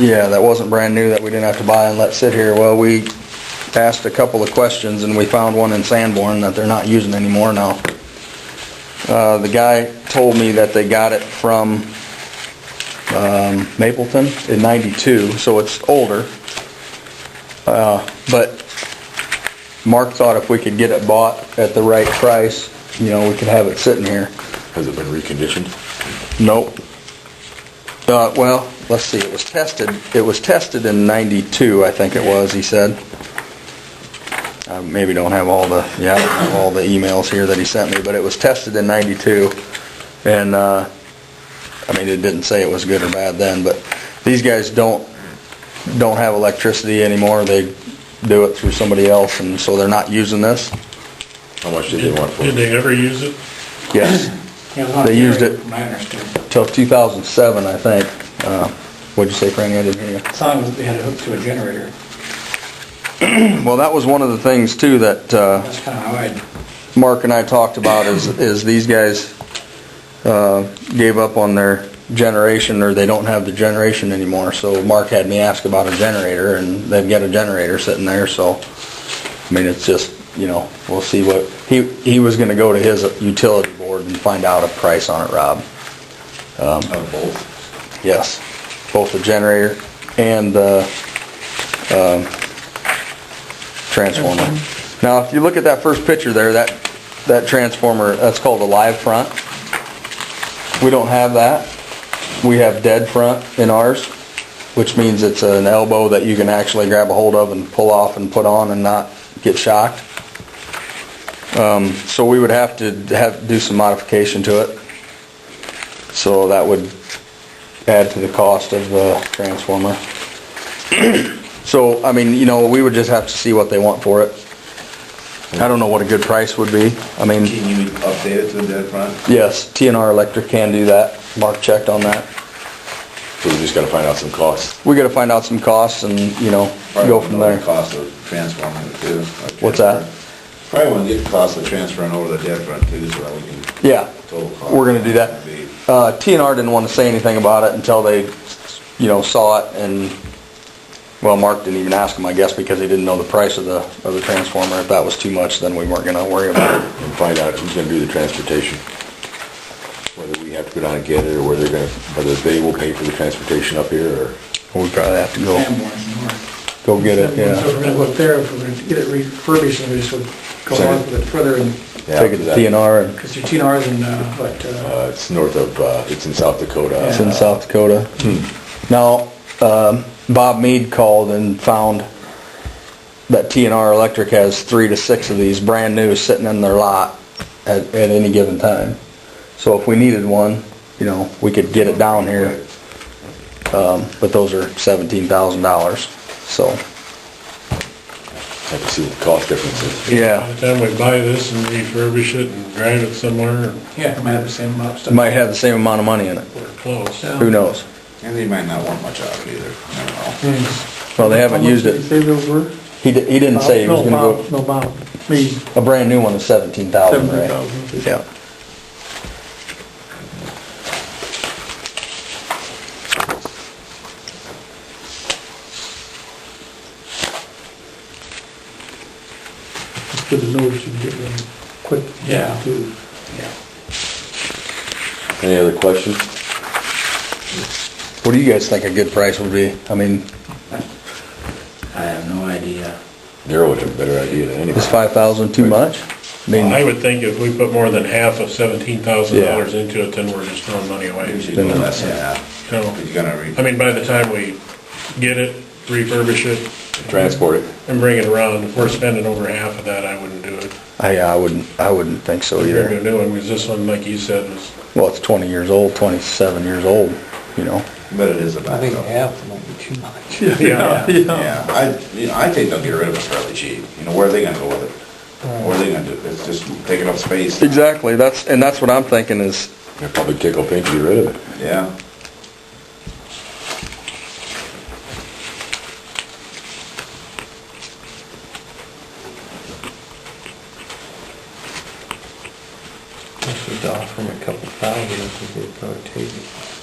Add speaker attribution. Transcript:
Speaker 1: Yeah, that wasn't brand new that we didn't have to buy and let sit here. Well, we asked a couple of questions and we found one in Sanborn that they're not using anymore now. Uh, the guy told me that they got it from, um, Mapleton in ninety-two, so it's older. Uh, but Mark thought if we could get it bought at the right price, you know, we could have it sitting here.
Speaker 2: Has it been reconditioned?
Speaker 1: Nope. Uh, well, let's see, it was tested, it was tested in ninety-two, I think it was, he said. I maybe don't have all the, yeah, I don't have all the emails here that he sent me, but it was tested in ninety-two. And, uh, I mean, it didn't say it was good or bad then, but these guys don't, don't have electricity anymore. They do it through somebody else and so they're not using this.
Speaker 2: How much did they want for
Speaker 3: Did
Speaker 2: it?
Speaker 3: they ever use it?
Speaker 1: Yes. They used it- Till two thousand seven, I think. Uh, what'd you say, Franny? I didn't hear you.
Speaker 4: I thought they had it hooked to a generator.
Speaker 1: Well, that was one of the things too that uh,
Speaker 4: That's kind of how I,
Speaker 1: Mark and I talked about is, is these guys uh, gave up on their generation or they don't have the generation anymore. So Mark had me ask about a generator and they've got a generator sitting there, so, I mean, it's just, you know, we'll see what, he, he was gonna go to his utility board and find out a price on it, Rob. Um,
Speaker 2: On both?
Speaker 1: Yes, both the generator and the um, transformer. Now, if you look at that first picture there, that, that transformer, that's called a live front. We don't have that. We have dead front in ours, which means it's an elbow that you can actually grab a hold of and pull off and put on and not get shocked. Um, So we would have to have, do some modification to it. So that would add to the cost of the transformer. So, I mean, you know, we would just have to see what they want for it. I don't know what a good price would be. I mean,
Speaker 2: you update it to the front?
Speaker 1: yes, TNR Electric can do that. Mark checked on that.
Speaker 2: So we just gotta find out some costs.
Speaker 1: We gotta find out some costs and, you know, go from there.
Speaker 5: Cost of transforming it too.
Speaker 1: What's that?
Speaker 5: Probably wanna get the cost of transferring over the debt front too, so that we can
Speaker 1: Yeah,
Speaker 5: total cost.
Speaker 1: we're gonna do that. Uh, TNR didn't wanna say anything about it until they, you know, saw it and, well, Mark didn't even ask him, I guess, because he didn't know the price of the, of the transformer. If that was too much, then we weren't gonna worry about it.
Speaker 2: And find out who's gonna do the transportation. Whether we have to go down and get it, or whether they're gonna, whether they will pay for the transportation up here, or
Speaker 1: We probably have to go.
Speaker 4: Sanborn,
Speaker 1: Go
Speaker 4: or.
Speaker 1: get it,
Speaker 4: So
Speaker 1: yeah.
Speaker 4: we're going to look there, if we're going to get it refurbished, and we just would go on with it further, and,
Speaker 2: Yeah,
Speaker 1: Take it to TNR and
Speaker 4: because your TNRs and, uh, what, uh,
Speaker 2: uh, it's north of, uh, it's in South Dakota.
Speaker 1: it's in South Dakota. Now, um, Bob Mead called and found that TNR Electric has three to six of these brand new sitting in their lot at, at any given time. So if we needed one, you know, we could get it down here. Um, but those are seventeen thousand dollars, so,
Speaker 2: Have to see what the cost difference is.
Speaker 1: yeah.
Speaker 3: By the time we buy this and refurbish it and drive it somewhere,
Speaker 4: yeah, it might have the same amount of
Speaker 1: It
Speaker 4: stuff.
Speaker 1: might have the same amount of money in it,
Speaker 3: we're close.
Speaker 4: Yeah.
Speaker 1: who knows?
Speaker 5: And they might not want much out of it either, I don't know.
Speaker 1: Well, they haven't used
Speaker 4: Mm-hmm.
Speaker 1: it.
Speaker 4: How much did you say those were?
Speaker 1: He, di- he didn't say he was
Speaker 4: No,
Speaker 1: gonna go.
Speaker 4: Bob, No, Bob, me,
Speaker 1: A brand new one is seventeen thousand, right?
Speaker 4: 17,000.
Speaker 1: Yeah.
Speaker 6: It's good to know we should get them quick.
Speaker 4: Yeah.
Speaker 6: too.
Speaker 2: Any other questions?
Speaker 1: What do you guys think a good price would be? I mean,
Speaker 5: I have no idea.
Speaker 2: Darryl would have a better idea than anybody.
Speaker 1: is five thousand too much? I
Speaker 3: I
Speaker 1: mean,
Speaker 3: would think if we put more than half of seventeen thousand
Speaker 1: Yeah.
Speaker 3: dollars into it, then we're just throwing money away.
Speaker 5: Usually do less than that,
Speaker 3: So,
Speaker 5: but you gotta re.
Speaker 3: I mean, by the time we get it, refurbish it,
Speaker 2: Transport it.
Speaker 3: and bring it around, if we're spending over half of that, I wouldn't do it.
Speaker 1: I, I wouldn't, I wouldn't think so
Speaker 3: Bring a
Speaker 1: either.
Speaker 3: new one, because this one, like you said, was,
Speaker 1: Well, it's twenty years old, twenty-seven years old, you know?
Speaker 5: But it is a backup.
Speaker 4: half might be too much.
Speaker 3: yeah,
Speaker 5: Yeah, I, you know, I think they'll get rid of it fairly cheap, you know, where are they gonna go with it? What are they gonna do, it's just taking up space.
Speaker 1: Exactly, that's, and that's what I'm thinking is,
Speaker 2: They'll probably tickle pink to get rid of it.
Speaker 5: Yeah.
Speaker 6: This is off from a couple thousand, if we probably take it.